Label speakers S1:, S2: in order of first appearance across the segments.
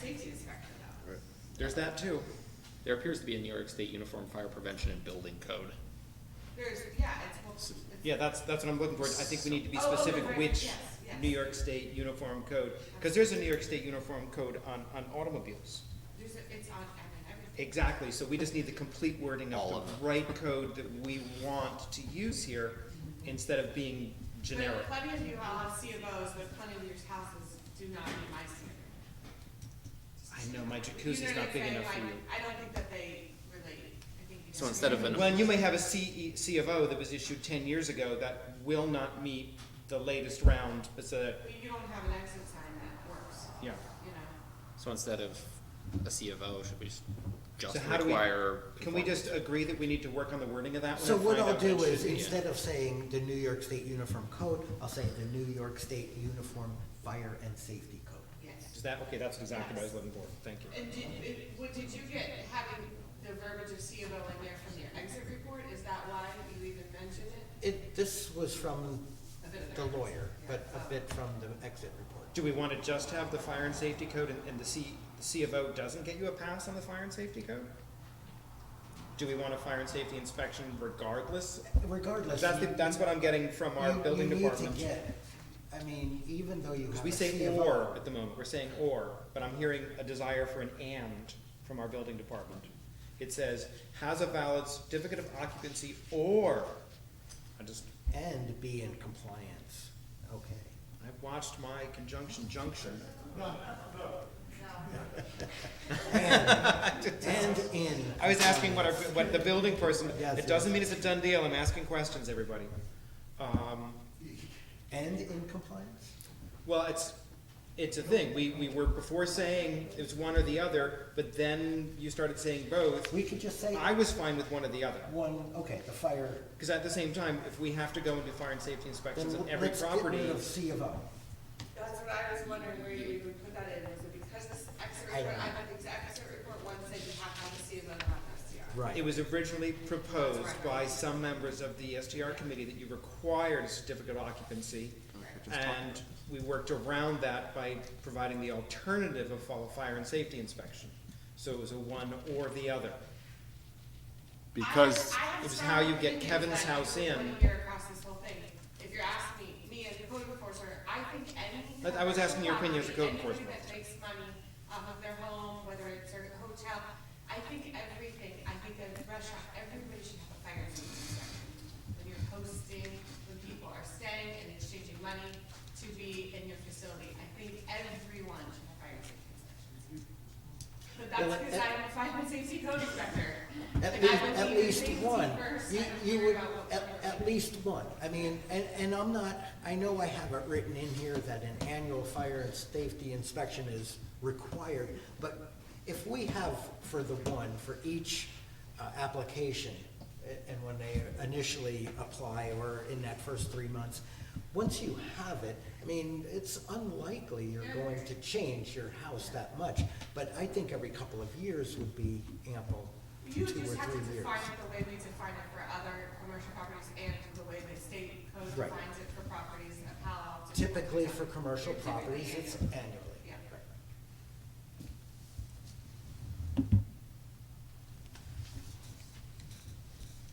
S1: safety inspector though.
S2: There's that too. There appears to be a New York State Uniform Fire Prevention and Building Code.
S1: There's, yeah, it's, well, it's.
S3: Yeah, that's, that's what I'm looking for. I think we need to be
S1: Oh, oh,
S3: specific
S1: right,
S3: which
S1: yes, yes.
S3: New York State uniform code, because there's a New York State uniform code on, on automobiles.
S1: There's, a- it's on, I mean, everything.
S3: Exactly, so we just need the complete wording
S2: All
S3: of
S2: of
S3: the right code that we want to use here instead of being generic.
S1: But plenty of you all have C of Os, but plenty of your houses do not meet my standard.
S3: I know, my
S1: You know
S3: jacuzzi's
S1: what
S3: not
S1: I'm
S3: big
S1: saying?
S3: enough
S1: Like,
S3: for you.
S1: I don't think that they relate. I think you
S2: So
S1: guys-
S2: instead of an-
S3: Well, and you may have a CE, C of O that was issued ten years ago that will not meet the latest round, but so that,
S1: Well, You don't have an exit sign that works,
S3: yeah.
S1: you know?
S2: So instead of a C of O, should we s- just
S3: So how do we,
S2: require?
S3: can we just
S2: conformance?
S3: agree that we need to work on the wording of that one?
S4: So
S3: and
S4: what
S3: find
S4: I'll
S3: out what
S4: do
S3: should
S4: is,
S3: be in?
S4: instead of saying the New York State Uniform Code, I'll say the New York State Uniform Fire and Safety Code.
S3: Is
S1: Yes.
S3: that, okay, that's exactly what I was looking for, thank you.
S1: And did, it- what, did you get having the verbiage of C of O in there from your exit report? Is that why you even mentioned it?
S4: It, this was from
S1: A bit of
S4: the
S1: that.
S4: lawyer, but
S1: Yeah. Oh.
S4: a bit from the exit report.
S3: Do we wanna just have the fire and safety code and, and the C, the C of O doesn't get you a pass on the fire and safety code? Do we want a fire and safety inspection regardless?
S4: Regardless.
S3: That's, the-
S4: you-
S3: that's what I'm getting from our
S4: you- you
S3: building
S4: need to
S3: department.
S4: get- I mean, even though you have.
S3: Because we
S4: a
S3: say
S4: CFO
S3: or at the moment, we're saying or, but I'm hearing a desire for an and from our building department. It says, has a valid certificate of occupancy or, I just,
S4: And be in compliance, okay.
S3: I watched my conjunction junction.
S4: And in.
S3: I was asking what our, what the building person,
S4: Yes,
S3: it doesn't mean it's a done deal, I'm asking questions, everybody. Um,
S4: And in compliance?
S3: Well, it's, it's a thing, we, we were before saying it was one or the other, but then you started saying both.
S4: We could just say
S3: I was fine with one or the other.
S4: one, okay, the fire.
S3: Because at the same time, if we have to go and do fire and safety inspections
S4: then
S3: on every
S4: let's get rid
S3: property,
S4: of C of O.
S1: That's what I was wondering where you would put that in, is it because this exit
S4: I don't
S1: report, I
S4: know.
S1: thought the exit report one said you have to have a C of O, not an SDR.
S3: it was originally proposed
S1: Right.
S3: by some members of the STR committee that you required a certificate of occupancy. And we worked around that by providing the alternative of follow fire and safety inspection. So it was a one or the other.
S5: Because,
S1: I have- I have
S3: It was
S1: strong
S3: how you get
S1: opinions
S3: Kevin's
S1: that I
S3: house
S1: would
S3: in.
S1: put here across this whole thing. If you're asking me, me as a code enforcer, I think any.
S3: But I was asking your opinion as a code
S1: property,
S3: enforcement
S1: Anybody that makes money off of their home, whether it's a hotel, I think everything, I think a restaurant, everybody should have a fire safety inspection. When you're hosting, when people are staying and exchanging money to be in your facility, I think everyone should have fire safety inspections. But that's
S4: Well,
S1: because
S4: at-
S1: I'm a fire and safety code inspector.
S4: At
S1: Like,
S4: least,
S1: I would
S4: at
S1: leave
S4: least
S1: safety
S4: one.
S1: first,
S4: You,
S1: I don't
S4: you
S1: care
S4: would,
S1: about what
S4: at,
S1: we're
S4: at least one. I mean, and, and I'm not, I know I have it written in here that an annual fire and safety inspection is required, but if we have for the one, for each, uh, application, a- and when they initially apply or in that first three months, once you have it, I mean, it's unlikely you're going to change your house that much, but I think every couple of years would be ample
S1: You
S4: two or three years.
S1: just have to define it the way we define it for other commercial properties and the way the state code
S4: Right.
S1: defines it for properties in Palo Alto.
S4: Typically for commercial properties, it's
S1: Typically,
S4: annually.
S1: Yeah.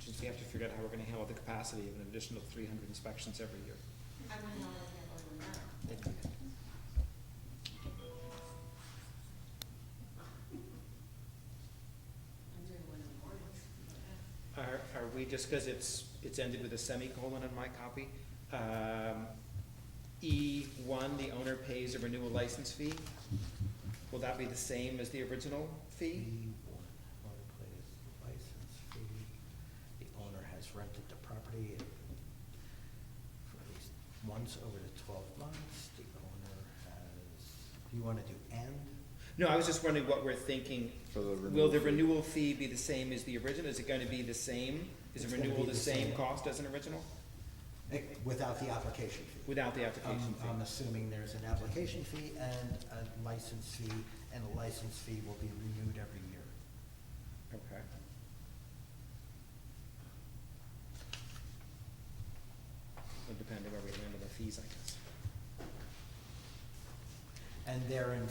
S3: Just we have to figure out how we're gonna handle the capacity of an additional three hundred inspections every year.
S1: I'm a no, I'm a no. I'm doing one in the morning.
S3: Are, are we, just because it's, it's ended with a semicolon on my copy, um, E one, the owner pays a renewal license fee? Will that be the same as the original
S4: The
S3: fee?
S4: one owner pays the license fee, the owner has rented the property for at least once over the twelve months, the owner has, do you wanna do and?
S3: No, I was just wondering what we're thinking.
S5: For the
S3: Will
S5: renewal
S3: the
S5: fee.
S3: renewal fee be the same as the original? Is it gonna be the same? Is a
S4: It's gonna be
S3: renewal the
S4: the
S3: same
S4: same.
S3: cost as an original
S4: eh, Without the application fee.
S3: without the
S4: I'm,
S3: application
S4: I'm
S3: fee?
S4: assuming there's an application fee and a license fee, and the license fee will be renewed every year.
S3: Okay. Would depend on where we land on the fees, I guess.
S4: And therein